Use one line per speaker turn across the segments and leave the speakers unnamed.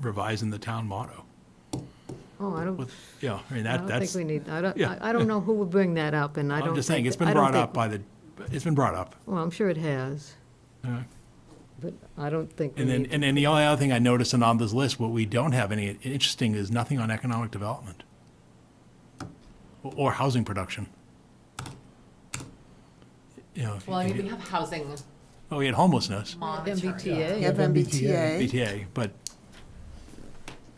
revising the town motto
Oh, I don't,
with, you know, I mean,
I
that,
don't think
that's,
we need, I don't,
yeah.
I I don't know who would bring that up, and I
I'm
don't think.
just saying, it's
I
been
don't
brought
think-
up by the, it's been brought up.
Well, I'm sure it has,
uh,
but I don't think we
And then,
need,
and then the only other thing I noticed and on this list, what we don't have any, interesting, is nothing on economic development or, or housing production. You know, if you-
Well, I mean, we have housing
oh, we had homelessness,
monitoring.
MBTA.
You have MBTA.
BTA, but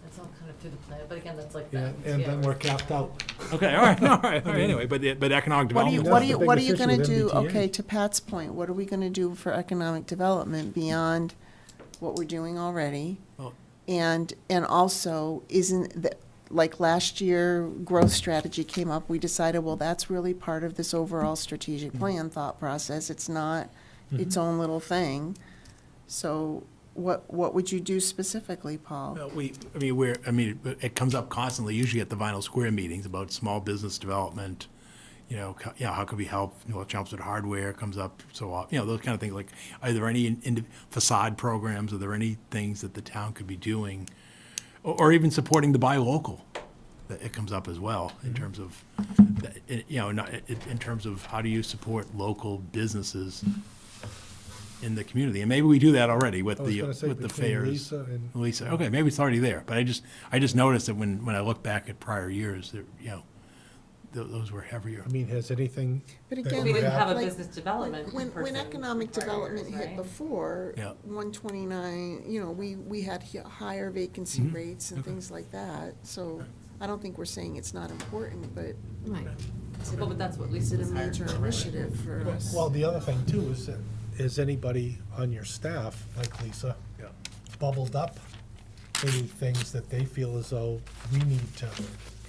That's all kind of through the plan, but again, that's like. the
Yeah, and then
MBTA.
we're capped out.
Okay, all right, all right, all right, anyway, but, the- but economic
What are you,
development.
what are
That's
you,
the biggest
what are you gonna
issue
do,
with MBTA.
okay, to Pat's point, what are we gonna do for economic development beyond what we're doing already?
Oh.
Well-
And, and also, isn't, that like last year, growth strategy came up, we decided, well, that's really part of this overall
Mm-hmm.
strategic plan thought process, it's not its own little thing. So what, what would you do specifically, Paul?
Well, We, I mean, we're, I mean, it- it comes up constantly, usually at the Vinyl Square meetings, about small business development, you know, co- you know, how could we help, you know, Chelmsford Hardware comes up so often, you know, those kind of things, like, are there any in- in- facade programs, are there any things that the town could be doing? Or, or even supporting the buy local, that it comes up as well, in
Mm-hmm.
terms of, that- it- you know, not, it- in terms of how do you support local businesses in the community, and maybe we do that already with
I was
the,
gonna say
with the
between
fairs.
Lisa and-
Lisa, okay, maybe it's already there, but I just, I just noticed that when, when I look back at prior years, that, you know, tho- those were heavier.
I mean, has anything?
But
that
again,
We
we
didn't have a
Like,
business development
When, when
person
economic
prior
development
years,
hit
right?
before,
Yeah.
one twenty-nine, you know, we, we had hi- higher vacancy rates and
Okay.
things like that, so I don't think we're saying it's not important, but
Right.
Well, but that's what
is
Lisa
it a
was hired
major
for, right?
initiative for us?
Well, the other thing too is, that is anybody on your staff, like Lisa,
Yeah.
bubbled up any things that they feel as though we need to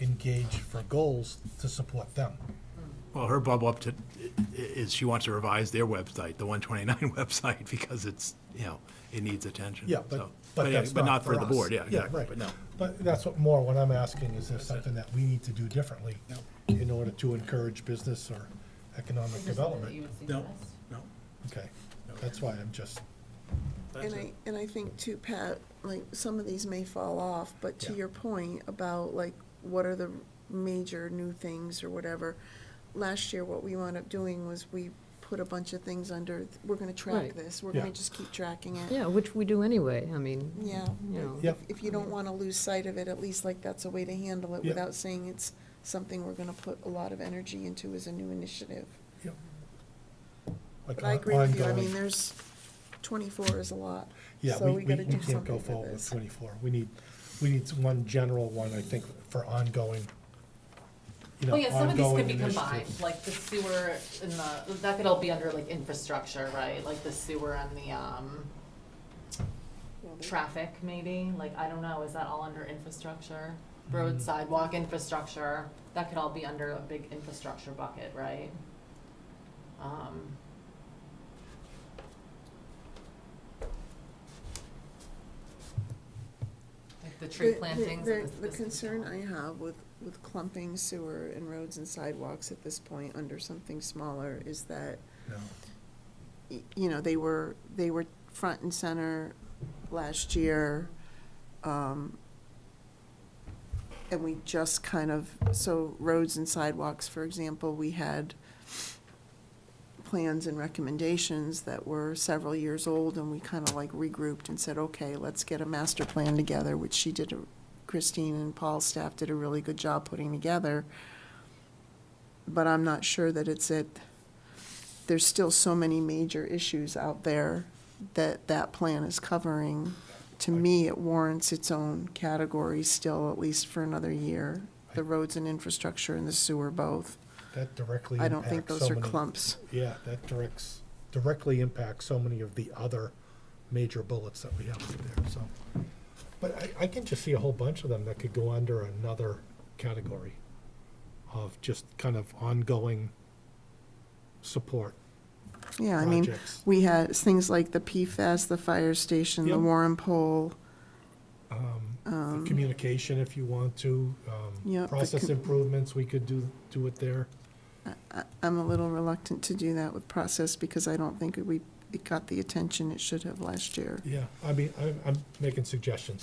engage for goals to support them?
Well, her bubble up to, i- i- is she wants to revise their website, the one twenty-nine website, because it's, you know, it needs attention.
Yeah, but,
so.
but
yeah,
that's
But not for the
us.
board, yeah,
Yeah,
exactly,
right.
but no.
But that's what, more what I'm asking, is there something that we need to do differently in order to encourage business or economic
Is there something that you
development?
would
No.
suggest?
No.
Okay, that's why I'm just,
And I, and I think too, Pat, like, some of these may fall off, but to
Yeah.
your point about like, what are the major new things or whatever? Last year, what we wound up doing was we put a bunch of things under, we're gonna track
Right.
this, we're gonna
Yeah.
just keep tracking it.
Yeah, which we do anyway, I mean,
Yeah.
you know.
yeah,
If you don't wanna lose sight of it, at least like that's a way to handle it
Yeah.
without saying it's something we're gonna put a lot of energy into as a new initiative.
like
But I agree with you, I
ongoing.
mean, there's, twenty-four is a lot,
Yeah,
so
we,
we
we,
gotta
we
do
can't go
something
forward
with
with
this.
twenty-four. We need, we need one general one, I think, for ongoing, you know,
Well, yeah, some of these
ongoing
could be combined,
initiatives.
like the sewer and the, that could all be under like infrastructure, right? Like the sewer and the, um, traffic maybe, like, I don't know, is that all under infrastructure? Road sidewalk infrastructure, that could all be under a big infrastructure bucket, right? Um, Like the tree
The- the-
plantings
the-
and this.
The
this-
concern I have with, with clumping sewer and roads and sidewalks at this point under something smaller is that
No.
y- you know, they were, they were front and center last year. um, And we just kind of, so roads and sidewalks, for example, we had plans and recommendations that were several years old, and we kind of like regrouped and said, okay, let's get a master plan together, which she did, a- Christine and Paul's staff did a really good job putting together. But I'm not sure that it's at there's still so many major issues out there that that plan is covering. To me, it warrants its own category still, at least for another year. The roads and infrastructure and the sewer both.
That directly
I don't think
impacts
those
so
are
many.
clumps.
Yeah, that directs, directly impacts so many of the other major bullets that we have up there, so. But I, I can just see a whole bunch of them that could go under another category of just kind of ongoing support.
Yeah, I mean,
Projects.
we had things like the PFAS, the fire station, the
Yep.
Warren Pole.
communication if you want to. um,
Um, Yeah, the
Process
com-
improvements, we could do, do it there.
I- I'm a little reluctant to do that with process because I don't think we, it got the attention it should have last year.
Yeah, I mean, I'm, I'm making suggestions.